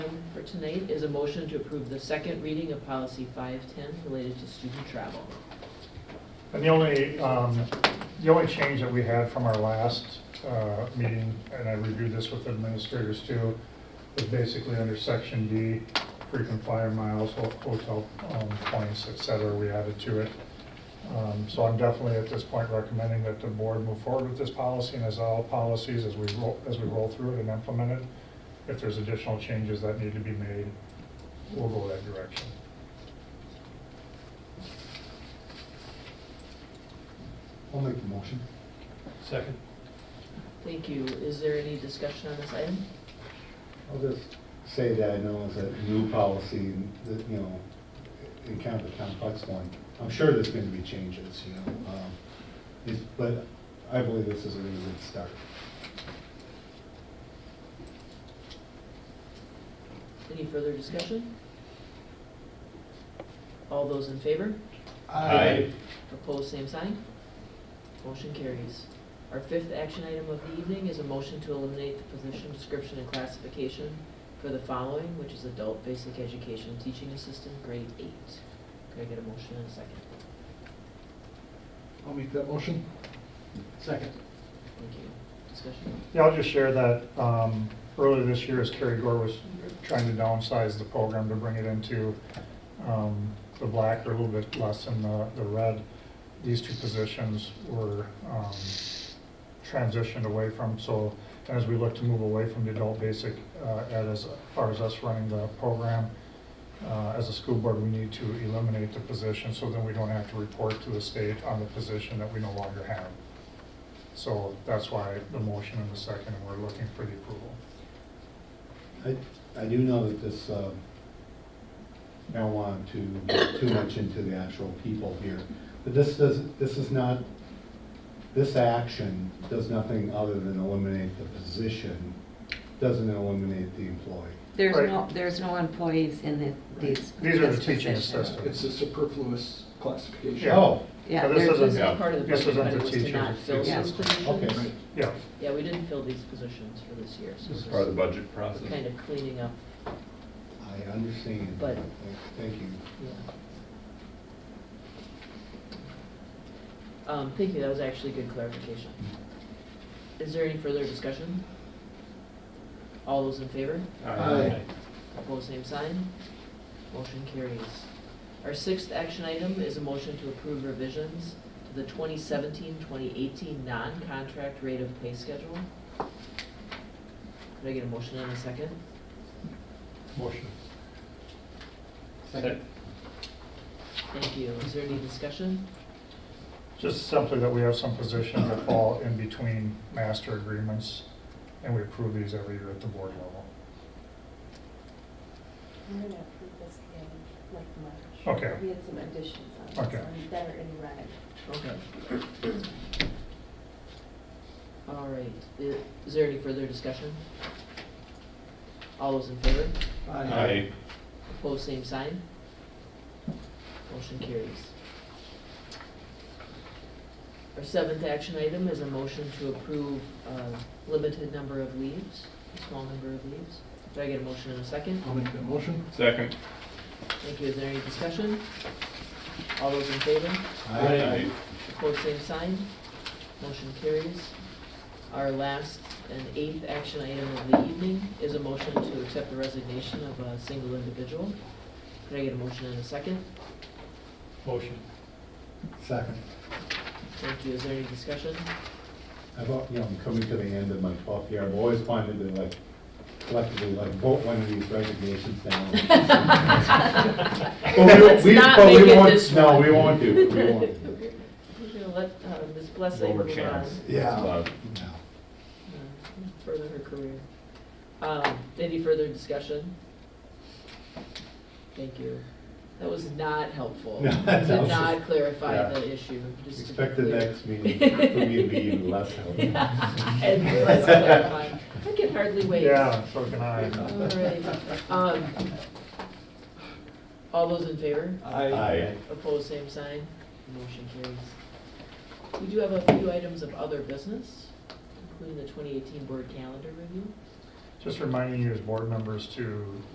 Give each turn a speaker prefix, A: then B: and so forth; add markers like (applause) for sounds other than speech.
A: tonight is a motion to approve the second reading of policy 510 related to student travel.
B: And the only, um, the only change that we had from our last uh, meeting, and I reviewed this with administrators too, is basically under section D, frequent flyer miles, ho- hotel um, points, et cetera, we added to it. Um, So I'm definitely at this point recommending that the board move forward with this policy and as all policies, as we roll, as we roll through it and implement it, if there's additional changes that need to be made, we'll go that direction.
C: I'll make the motion.
D: Second.
A: Thank you. Is there any discussion on this item?
C: I'll just say that I know it's a new policy that, you know, in kind of a complex one. I'm sure there's going to be changes, you know, um, it's- but I believe this is a really good start.
A: Any further discussion? All those in favor?
D: Aye.
A: Opposed, same sign. Motion carries. Our fifth action item of the evening is a motion to eliminate the position description and classification for the following, which is adult basic education teaching assistant, grade eight. Could I get a motion and a second?
E: I'll make that motion. Second.
A: Thank you. Discussion?
B: Yeah, I'll just share that um, earlier this year, as Kerry Gore was trying to downsize the program to bring it into um, the black or a little bit less than the the red, these two positions were um, transitioned away from. So as we look to move away from the adult basic uh, ed, as far as us running the program, uh, as a school board, we need to eliminate the position so then we don't have to report to the state on the position that we no longer have. So that's why the motion and the second, and we're looking for the approval.
C: I, I do know that this, um, I don't want to, too much into the actual people here, but this does, this is not, this action does nothing other than eliminate the position, doesn't eliminate the employee.
F: There's
B: Right.
F: no, there's no employees in the, these.
B: These are the
F: this
B: teaching
F: position.
B: assistants.
E: It's a superfluous classification.
B: Yeah.
C: Oh,
F: Yeah,
B: Now, this
F: there's-
B: isn't-
A: This
D: Yeah.
A: is part of the
B: This
A: budget,
B: isn't
A: but
B: the
A: it was to
B: teachers,
A: not
B: it's-
A: fill
F: yeah.
A: these
C: okay.
A: positions.
B: Yeah,
A: Yeah, we didn't fill these positions for this year, so
B: This is
A: this
D: Part of
A: is
D: the budget process.
A: kind of cleaning up,
C: I understand.
A: But-
C: Thank you.
A: yeah. Um, thank you, that was actually good clarification. Is there any further discussion? All those in favor?
C: Aye.
A: Opposed, same sign. Motion carries. Our sixth action item is a motion to approve revisions to the 2017-2018 non-contract rate of pay schedule. Could I get a motion and a second?
E: Motion.
D: Second.
A: Thank you. Is there any discussion?
B: just simply that we have some positions that fall in between master agreements, and we approve these every year at the board level.
G: We're gonna approve this in like March.
B: Okay.
G: We had some additions on
B: Okay.
G: this one that are in red.
A: Okay. All right. I- Is there any further discussion? All those in favor?
D: Aye.
A: Opposed, same sign. Motion carries. Our seventh action item is a motion to approve a limited number of leaves, a small number of leaves. Do I get a motion in a second?
E: I'll make that motion.
D: Second.
A: Thank you. Is there any discussion? All those in favor?
C: I
A: Opposed, same sign. Motion carries. Our last and eighth action item of the evening is a motion to accept the resignation of a single individual. Could I get a motion in a second?
D: Motion.
C: Second.
A: Thank you. Is there any discussion?
C: I've, al- you know, I'm coming to the end of my twelfth year. I've always wanted to like collectively like vote one of these resignations down. But we-
A: Let's
C: we-
A: not
C: but we
A: make it
C: won't-
A: this
C: No,
A: one.
C: we won't do, we won't. do.
A: (laughs) We're gonna let uh, Ms. Blessing
D: Lower
A: move on
D: chance.
C: Yeah.
D: Love.
C: No.
A: uh, further her career. Um, Any further discussion? Thank you. That was not helpful.
C: (laughs) No,
A: Did
C: that was-
A: not clarify
C: yeah.
A: the issue. just to be
C: Expect the
A: clear.
C: next meeting for me to be
A: (laughs)
C: even less helpful.
A: And less clarifying. I can hardly wait.
B: Yeah, so can
A: All
B: I.
A: right. Um, All those in favor?
C: Aye.
A: Opposed, same sign. Motion carries. We do have a few items of other business, including the 2018 board calendar review.
B: Just reminding you as board members to